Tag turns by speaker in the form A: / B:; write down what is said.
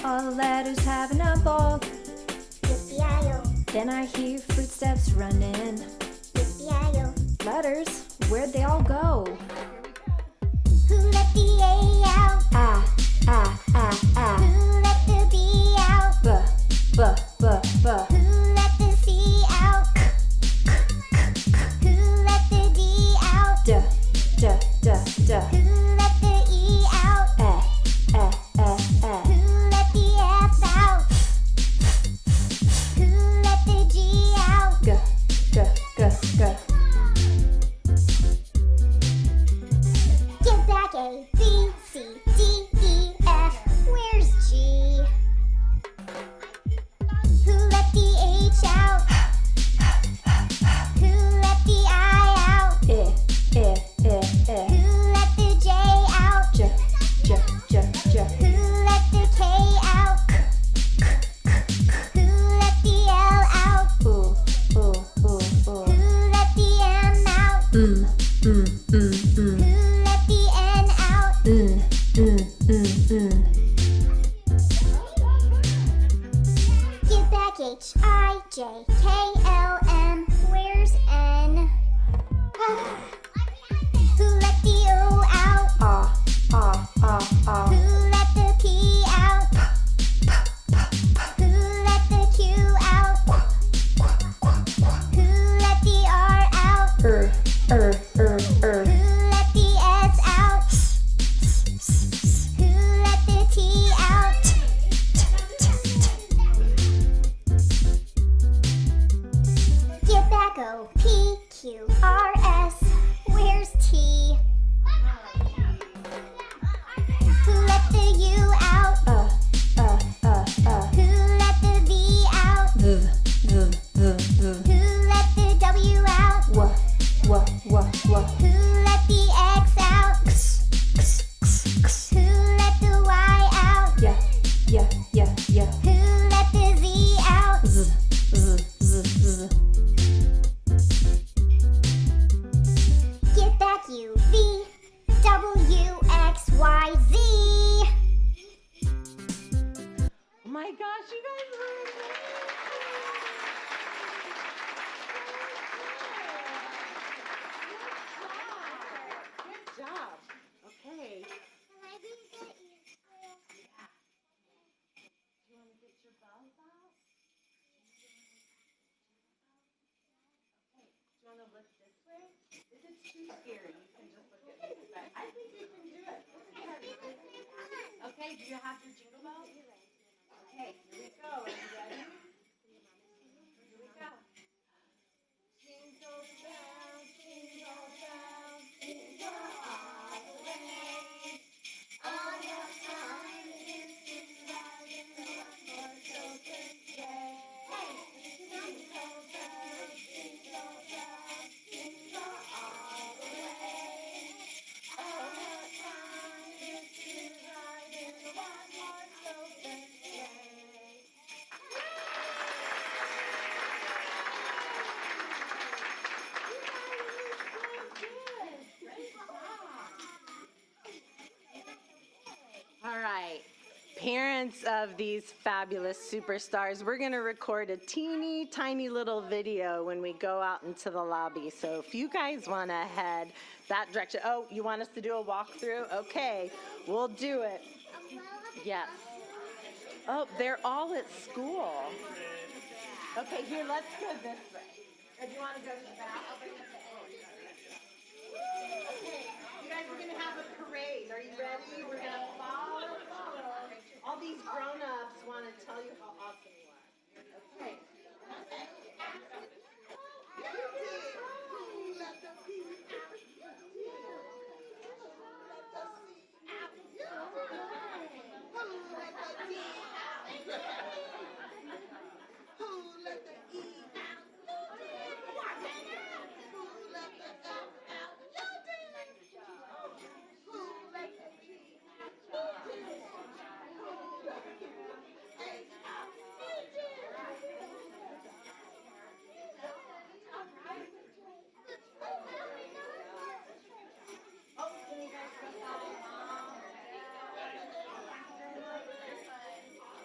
A: All the letters having a ball.
B: Yippee-yi-yo,
A: Then I hear footsteps running.
B: yippee-yi-yo.
A: Letters, where'd they all go?
B: Who let the A out?
A: Ah, ah, ah, ah.
B: Who let the B out?
A: B, b, b, b.
B: Who let the C out? Who let the D out?
A: D, d, d, d.
B: Who let the E out?
A: Eh, eh, eh, eh.
B: Who let the F out? Who let the G out?
A: G, g, g, g.
B: Give back A, B, C, D, E, F. Where's G? Who let the H out? Who let the I out?
A: Eh, eh, eh, eh.
B: Who let the J out?
A: J, j, j, E, j.
B: Who let the K out? Who let the L out?
A: Ooh, ooh, ooh, ooh.
B: Who let the M out?
A: Mm, mm, mm, mm.
B: Who let the N out?
A: Mm, mm, mm, mm.
B: Give back H I J K L M. Where's N? Who let the O out?
A: Ah, ah, ah,
B: Who
A: ah.
B: let the P out? Who let the Q out? Who let the R out?
A: Er, er, er, er.
B: Who let the S out? Who let the T out? Give back O P Q R S. Where's T? Who let the U out?
A: Uh, uh, uh, uh.
B: Who let the V out?
A: V, v, v, v.
B: Who let the W out?
A: W, w, w, w.
B: Who let the X out?
A: X, x, x, x.
B: Who let the Y out?
A: Yeah, yeah, yeah, yeah.
B: Who let the Z out?
A: Z, z, z, z.
B: Get back U V W X Y Z.
C: my gosh, you guys were amazing. Good job. Good job. Okay. Okay, do you have your jingle bells? Okay, here we go. Are you ready? Here we go. Jingle bells, jingle bells, jingle all the way. All the fun is in riding the children's sleigh. Hey, jingle bells, jingle bells, jingle all the way. All the fun is in riding the one horse open sleigh.
D: All right. Parents of these fabulous superstars, we're going to record a teeny tiny little video when we go out into the lobby. So if you guys want to head that direction, oh, you want us to do a walkthrough? Okay, we'll do it. Yes. Oh, they're all at school. Okay, here, let's go this way. If you want to go to the back, I'll bring up the end. Okay, you guys are gonna have a parade. Are you ready? We're gonna follow, follow. All these grown-ups wanna tell you how